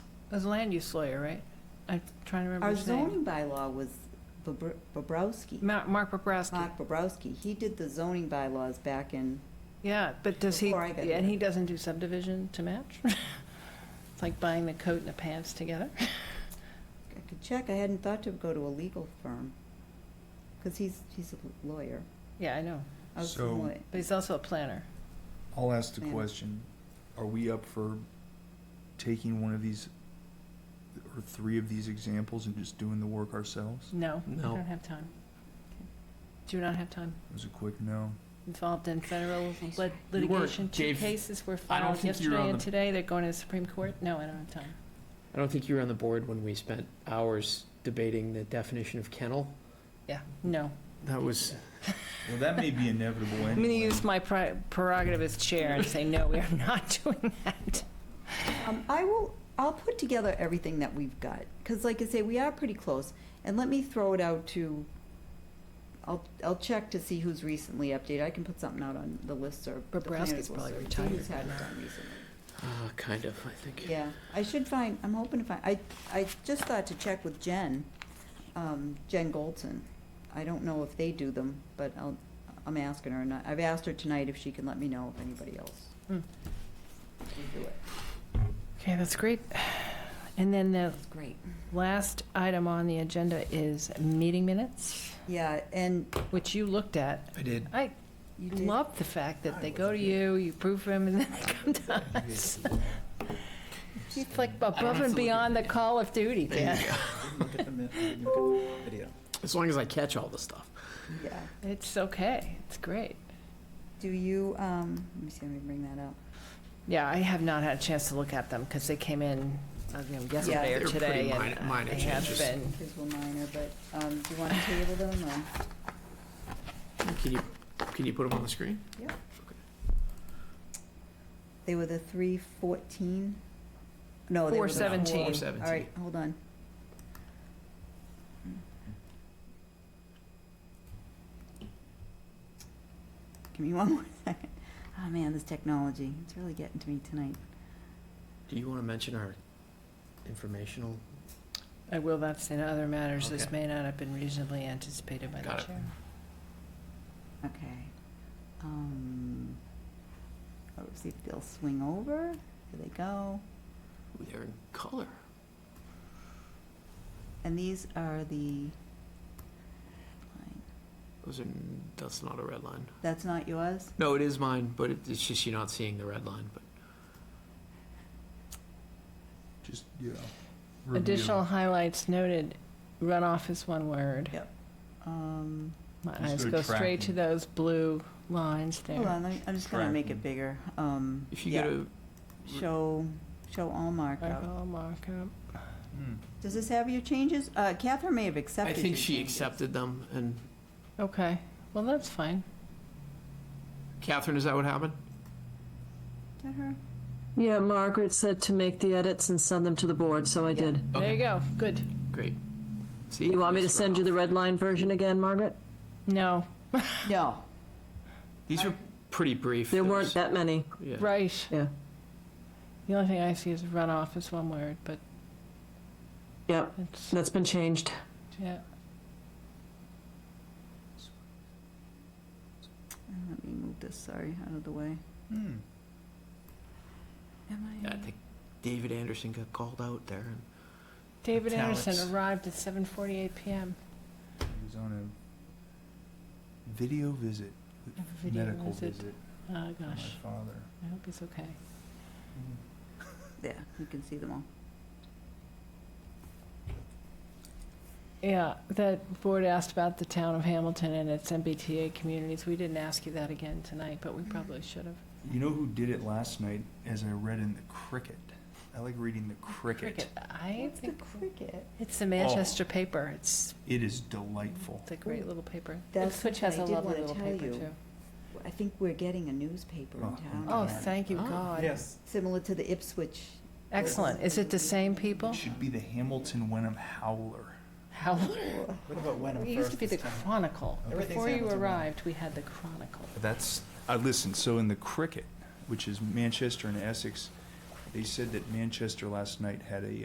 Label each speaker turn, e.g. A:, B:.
A: As a land use lawyer, right? I'm trying to remember
B: Our
A: his name.
B: zoning bylaw was Bobr- Bobrowski,
A: Ma- Mark Bobrowski.
B: Mark Bobrowski. He did the zoning bylaws back in,
A: Yeah, but does he,
B: Before I got
A: and
B: here.
A: he doesn't do subdivision to match? It's like buying the coat and the pants together.
B: I could check, I hadn't thought to go to a legal firm, because he's, he's a lawyer.
A: Yeah, I know,
B: I was
C: So-
B: like,
A: but he's also a planner.
C: I'll ask the
B: Yeah.
C: question, are we up for taking one of these, or three of these examples and just doing the work ourselves?
A: No, I
D: No.
A: don't have time. Do not have time.
C: It was a quick no.
A: Involved in federal
B: Nice
A: lit-
D: You weren't,
A: litigation, two
D: Dave.
A: cases were
D: I don't
A: filed
D: think you were on
A: yesterday and
D: the-
A: today, they're going to the Supreme Court. No, I don't have time.
D: I don't think you were on the board when we spent hours debating the definition of kennel.
A: Yeah, no.
D: That was,
C: Well, that may be inevitable
A: I'm going to use my pri- prerogative as chair and say, no, we are not doing that.
B: Um, I will, I'll put together everything that we've got, because like I say, we are pretty close. And let me throw it out to, I'll, I'll check to see who's recently updated. I can put something out on the listserv. the planners
A: Bobrowski's probably
B: listserv, see
A: retired
B: Who's had it
A: now.
B: done recently.
D: uh, kind of, I think.
B: Yeah, I should find, I'm hoping to find, I, I just thought to check with Jen, um, Jen Goldson. I don't know if they do them, but I'll, I'm asking her, and I- I've asked her tonight if she can let me know if anybody else
A: Hmm.
B: would do it.
A: Okay, that's great. And then the
B: That's great.
A: last item on the agenda is meeting minutes,
B: Yeah, and
A: which you looked at.
C: I did.
A: I
B: you did.
A: love the fact that
C: I
A: they go to
C: wasn't here.
A: you, you approve them, and then they come to us. It's like above
D: have to look
A: and
D: at
A: beyond the
D: it.
A: call of duty, Dan.
D: As long as I catch all the stuff.
B: Yeah.
A: It's okay, it's great.
B: Do you, um, let me see, let me bring that up.
A: Yeah, I have not had a chance to look at them, because they came in uh, you know, yesterday
B: Yeah,
A: or
D: they're
A: today,
D: pretty
A: and
D: minor- minor
A: I have
D: changes.
A: been,
B: His were minor, but, um, do you want to table them or?
D: Can you, can you put them on the screen?
B: Yeah. They were the three fourteen? No, they were the.
A: 417.
B: four-
D: 417.
B: All right, hold on. Give me one more second. Oh, man, this technology, it's really getting to me tonight.
D: Do you want to mention our informational?
A: I will, that's in other matters, this
D: Okay.
A: may not have been reasonably anticipated by the
D: Got it.
A: chair.
B: Okay. Um, let's see if they'll swing over. Here they go.
D: Ooh, They're in color.
B: And these are the,
D: Those are, that's not a red line.
B: that's not yours?
D: No, it is mine, but it- it's just you're not seeing the red line, but
C: Just, you know. review.
A: Additional highlights noted, runoff is one word.
B: Um,
A: My
C: Just
A: eyes
C: go
A: go straight to
C: tracking.
A: those blue lines
B: hold
A: there.
B: on, let me- I'm just gonna make it
C: Tracking.
B: bigger. Um,
D: if you
B: yeah.
D: go to,
B: Show, show all markup.
A: I'll mark up.
C: Hmm.
B: Does this have your changes? Uh, Catherine may have
D: I
B: accepted
D: think
B: your
D: she
B: changes.
D: accepted them, and
A: Okay, well, that's fine.
D: Catherine, is that what happened?
B: Is that her?
E: Yeah, Margaret said to make the edits and send them to the board, so Oh, I did.
A: There you go, good.
D: Great. See?
E: You want me to
D: These were
E: send you the
D: off.
E: red line version again, Margaret?
A: No,
B: No.
D: These were pretty brief.
E: There
D: It
E: weren't
D: was-
E: that many.
D: yeah.
A: right.
E: Yeah.
A: The only thing I see is runoff is one word, but
E: Yep,
A: it's,
E: that's been changed.
A: yeah.
B: Let me move this, sorry, out of the way.
C: Hmm.
B: Am
D: Yeah, I think David Anderson got called out there. and
A: David
D: Italics.
A: Anderson arrived at 7:48 PM.
C: He was on a video visit,
A: A video
C: medical
A: visit.
C: visit,
A: Oh,
C: with my
A: gosh,
C: father.
A: I hope he's okay.
C: Hmm.
B: Yeah, you can see them all.
A: Yeah, that board asked about the town of Hamilton and its MBTA communities. We didn't ask you that again tonight, but
C: Mm.
A: we probably should have.
C: You know who did it last night, as I read in the cricket? I like reading the cricket.
A: I
B: What's the
A: think,
B: cricket?
A: it's the Manchester paper. It's,
C: It is delightful.
A: it's a great little paper.
B: That's
A: Ipswich has a
B: something I did
A: lovely
B: wanna
A: little
B: tell
A: paper,
B: you.
A: too.
B: I think we're getting a newspaper in
C: Oh,
B: town.
A: Oh,
C: Yeah.
A: thank you,
D: Oh,
A: God.
C: Yes.
B: Similar to the Ipswich.
A: Excellent. Is it the same
C: It
A: people?
C: should be the Hamilton Wenham Howler.
A: How,
F: What about Wenham
A: it
F: first?
A: used to be the
F: this time?
A: Chronicle.
F: Everything's
A: Before you
F: Hamilton Wenham.
A: arrived, we had the Chronicle.
C: That's, I listened, so in the cricket, which is Manchester and Essex, they said that Manchester last night had a